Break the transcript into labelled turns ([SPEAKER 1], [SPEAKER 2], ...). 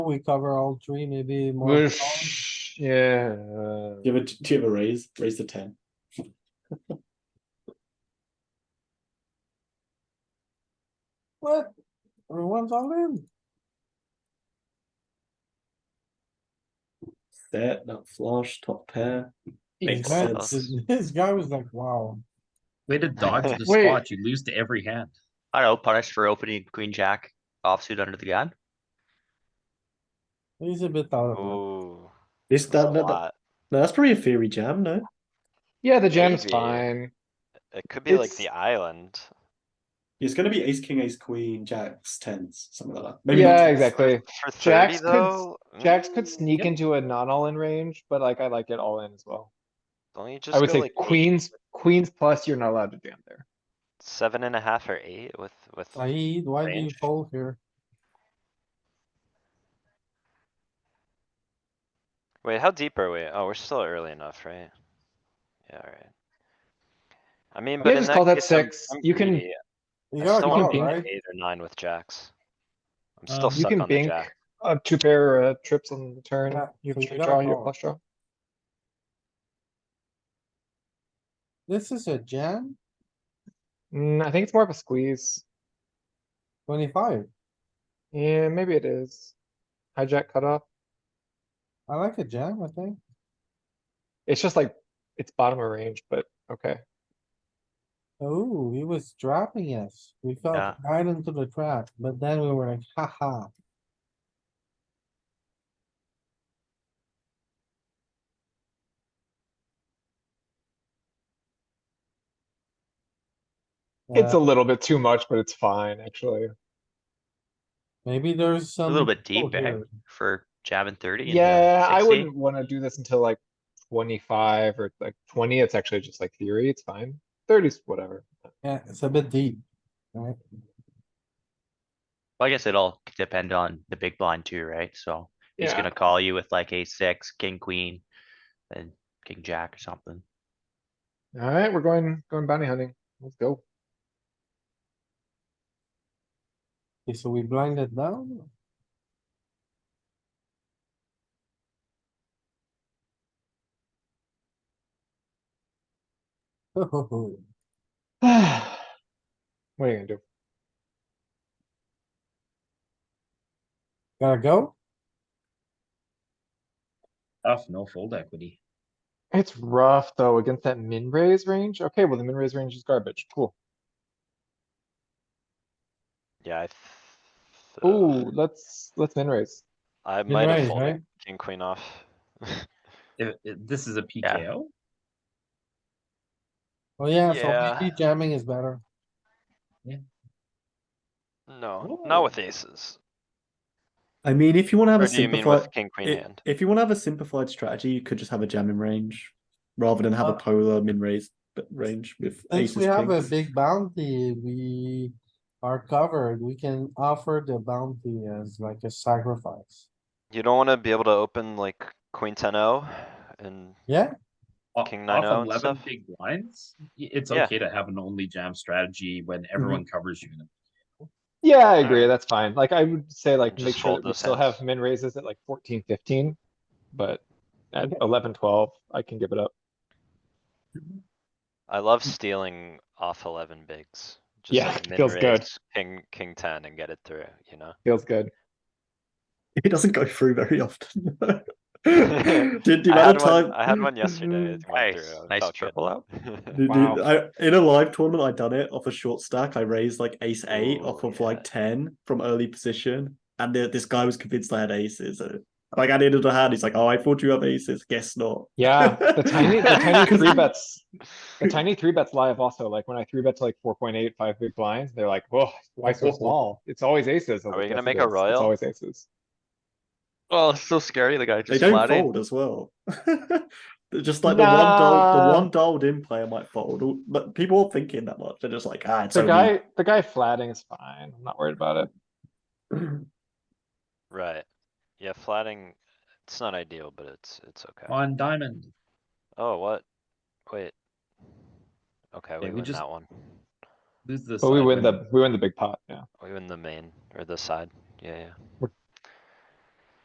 [SPEAKER 1] we cover all three, maybe more.
[SPEAKER 2] We're, sh- yeah, uh,
[SPEAKER 3] Do you have a, do you have a raise? Raise the ten.
[SPEAKER 1] What? Everyone's all in.
[SPEAKER 3] Set, that flush, top pair.
[SPEAKER 1] This
[SPEAKER 3] Makes
[SPEAKER 1] guy-
[SPEAKER 3] sense.
[SPEAKER 1] This guy was like, wow.
[SPEAKER 4] Way to dodge the
[SPEAKER 2] Wait.
[SPEAKER 4] spot. You lose to every hand.
[SPEAKER 5] I don't know, punished for opening queen jack offsuit under the gun.
[SPEAKER 1] He's a bit out of
[SPEAKER 6] Oh.
[SPEAKER 1] it.
[SPEAKER 6] Ooh.
[SPEAKER 3] Is
[SPEAKER 6] that's a
[SPEAKER 3] that, no, that-
[SPEAKER 6] lot.
[SPEAKER 3] no, that's probably a theory jam, no?
[SPEAKER 2] yeah, the jam's
[SPEAKER 6] Maybe.
[SPEAKER 2] fine.
[SPEAKER 6] It could be like
[SPEAKER 3] It's-
[SPEAKER 6] the island.
[SPEAKER 3] It's gonna be ace, king, ace, queen, jacks, tens, something like that. Maybe not
[SPEAKER 2] Yeah,
[SPEAKER 3] tens.
[SPEAKER 2] exactly.
[SPEAKER 6] For thirty
[SPEAKER 2] Jacks could s-
[SPEAKER 6] though.
[SPEAKER 2] Jacks
[SPEAKER 6] mm,
[SPEAKER 2] could sneak into a non all in range, but like I like it all in as well.
[SPEAKER 6] Don't you
[SPEAKER 2] I
[SPEAKER 6] just
[SPEAKER 2] would
[SPEAKER 6] go
[SPEAKER 2] say
[SPEAKER 6] like eight,
[SPEAKER 2] queens, queens plus you're not allowed to jam there.
[SPEAKER 6] seven and a half or eight with, with,
[SPEAKER 1] Said, why do you
[SPEAKER 6] Range.
[SPEAKER 1] fold here?
[SPEAKER 6] wait, how deep are we? Oh, we're still early enough, right? Yeah, alright. I mean, but in
[SPEAKER 2] just call
[SPEAKER 6] that
[SPEAKER 2] that
[SPEAKER 6] case, I'm,
[SPEAKER 2] six.
[SPEAKER 6] I'm
[SPEAKER 2] You can-
[SPEAKER 6] greedy.
[SPEAKER 1] You
[SPEAKER 6] I
[SPEAKER 1] gotta
[SPEAKER 6] still
[SPEAKER 2] You can
[SPEAKER 1] call,
[SPEAKER 6] want
[SPEAKER 2] bing
[SPEAKER 1] right?
[SPEAKER 6] like eight or nine with jacks. I'm
[SPEAKER 4] Um,
[SPEAKER 6] still
[SPEAKER 2] You
[SPEAKER 6] stuck
[SPEAKER 2] can
[SPEAKER 6] on the
[SPEAKER 2] bink
[SPEAKER 6] jack.
[SPEAKER 2] a two pair uh, trips on the turn.
[SPEAKER 1] Yeah,
[SPEAKER 2] You
[SPEAKER 1] so you
[SPEAKER 2] straight
[SPEAKER 1] gotta
[SPEAKER 2] draw your
[SPEAKER 1] call.
[SPEAKER 2] flush draw.
[SPEAKER 1] This is a jam,
[SPEAKER 2] Mm, I think it's more of a squeeze.
[SPEAKER 1] twenty-five.
[SPEAKER 2] Yeah, maybe it is. Hijack cutoff.
[SPEAKER 1] I like a jam, I think.
[SPEAKER 2] It's just like, it's bottom of range, but okay.
[SPEAKER 1] Oh, he was trapping us. We fell
[SPEAKER 6] Yeah.
[SPEAKER 1] right into the trap, but then we were like, haha.
[SPEAKER 2] It's a
[SPEAKER 1] Uh,
[SPEAKER 2] little bit too much, but it's fine, actually.
[SPEAKER 1] Maybe there's
[SPEAKER 5] A
[SPEAKER 1] some.
[SPEAKER 5] little bit
[SPEAKER 1] people
[SPEAKER 5] deep, eh,
[SPEAKER 1] here.
[SPEAKER 5] for jamming thirty. into
[SPEAKER 2] Yeah, I
[SPEAKER 5] 60.
[SPEAKER 2] wouldn't wanna do this until like twenty-five or like twenty. It's actually just like theory. It's fine. Thirties, whatever.
[SPEAKER 1] Yeah, it's a bit deep, right?
[SPEAKER 5] Well, I guess it all could depend on the big blind too, right? So he's
[SPEAKER 2] Yeah.
[SPEAKER 5] gonna call you with like ace six, king, queen, and king, jack or something.
[SPEAKER 2] Alright, we're going, going bounty hunting. Let's go.
[SPEAKER 1] Okay, so we blinded down. Oh,
[SPEAKER 2] What are you gonna do?
[SPEAKER 1] gotta go?
[SPEAKER 4] Tough, no fold equity.
[SPEAKER 2] It's rough though against that min raise range. Okay, well, the min raise range is garbage. Cool.
[SPEAKER 6] Yeah, I. th- uh,
[SPEAKER 2] Ooh, let's, let's min raise.
[SPEAKER 6] I
[SPEAKER 1] Min
[SPEAKER 6] might
[SPEAKER 1] raise,
[SPEAKER 6] have
[SPEAKER 1] right?
[SPEAKER 6] folded king, queen off.
[SPEAKER 4] If, if this is a PKO,
[SPEAKER 1] Oh, yeah, so
[SPEAKER 6] Yeah.
[SPEAKER 1] maybe jamming is better.
[SPEAKER 6] No, not with aces.
[SPEAKER 3] I mean, if you wanna have
[SPEAKER 6] Or
[SPEAKER 3] a
[SPEAKER 6] do you mean
[SPEAKER 3] simplified,
[SPEAKER 6] with king, queen
[SPEAKER 3] i-
[SPEAKER 6] hand?
[SPEAKER 3] if you wanna have a simplified strategy, you could just have a jam in range. Rather than have a
[SPEAKER 1] Uh,
[SPEAKER 3] polar min raise, but range with
[SPEAKER 1] Since
[SPEAKER 3] aces,
[SPEAKER 1] we have a
[SPEAKER 3] kings.
[SPEAKER 1] big bounty, we are covered. We can offer the bounty as like a sacrifice.
[SPEAKER 6] You don't wanna be able to open like queen ten O and
[SPEAKER 1] Yeah,
[SPEAKER 4] o-
[SPEAKER 6] King
[SPEAKER 4] off
[SPEAKER 6] 9-0 and
[SPEAKER 4] eleven
[SPEAKER 6] stuff?
[SPEAKER 4] big blinds, y- it's
[SPEAKER 6] Yeah.
[SPEAKER 4] okay to have an only jam strategy when
[SPEAKER 2] Mm-hmm.
[SPEAKER 4] everyone covers you. in a-
[SPEAKER 2] Yeah, I agree. That's fine. Like, I would say like, make
[SPEAKER 6] Just
[SPEAKER 2] sure
[SPEAKER 6] fold
[SPEAKER 2] that we
[SPEAKER 6] those
[SPEAKER 2] still
[SPEAKER 6] hands.
[SPEAKER 2] have min raises at like fourteen, fifteen. But at eleven, twelve, I can give it up.
[SPEAKER 6] I love stealing off eleven bigs. Just
[SPEAKER 2] Yeah,
[SPEAKER 6] like
[SPEAKER 2] feels good.
[SPEAKER 6] min-raise King, king ten and get it through, you know?
[SPEAKER 2] Feels good.
[SPEAKER 3] It doesn't go through very often. The- the
[SPEAKER 6] I
[SPEAKER 3] amount
[SPEAKER 6] had
[SPEAKER 3] of
[SPEAKER 6] one,
[SPEAKER 3] time.
[SPEAKER 6] I had one yesterday. it went through,
[SPEAKER 5] Nice,
[SPEAKER 6] I
[SPEAKER 5] nice
[SPEAKER 6] felt good.
[SPEAKER 5] triple up.
[SPEAKER 3] Dude,
[SPEAKER 2] Wow.
[SPEAKER 3] dude, I, in a live tournament, I done it off a short stack. I raised like ace eight
[SPEAKER 6] Ooh,
[SPEAKER 3] off of
[SPEAKER 6] yeah.
[SPEAKER 3] like ten from early position, and the, this guy was convinced I had aces. And, like I needed a hand. He's like, "Oh, I thought you have aces. Guess not."
[SPEAKER 2] Yeah, the tiny, the tiny three bets, the tiny three bets live also, like when I three bet to like four point eight, five big blinds, they're like, whoa, why so small? It's always aces. I was
[SPEAKER 6] Are we
[SPEAKER 2] like, "Yes,
[SPEAKER 6] gonna
[SPEAKER 2] it
[SPEAKER 6] make a
[SPEAKER 2] is. It's
[SPEAKER 6] royal?"
[SPEAKER 2] Always aces.
[SPEAKER 5] Well, it's so scary. The guy
[SPEAKER 3] They
[SPEAKER 5] just
[SPEAKER 3] don't
[SPEAKER 5] flatted.
[SPEAKER 3] fold as well. They're just like the one dull,
[SPEAKER 2] Nah.
[SPEAKER 3] the one dulled in player might fold, All- but people aren't thinking that much. They're just like, "Ah, it's
[SPEAKER 2] The
[SPEAKER 3] only-"
[SPEAKER 2] guy, the guy flatting is fine. I'm not worried about it.
[SPEAKER 6] Right. Yeah, flatting, it's not ideal, but it's, it's okay.
[SPEAKER 4] On diamond,
[SPEAKER 6] Oh, what? Wait. Okay, we
[SPEAKER 4] we
[SPEAKER 6] win
[SPEAKER 4] just-
[SPEAKER 6] that one. Oh,
[SPEAKER 4] lose this.
[SPEAKER 2] But we
[SPEAKER 4] side
[SPEAKER 2] win
[SPEAKER 4] win.
[SPEAKER 2] the, we win the big pot, yeah.
[SPEAKER 6] We win the main or the side. Yeah, yeah.
[SPEAKER 2] We're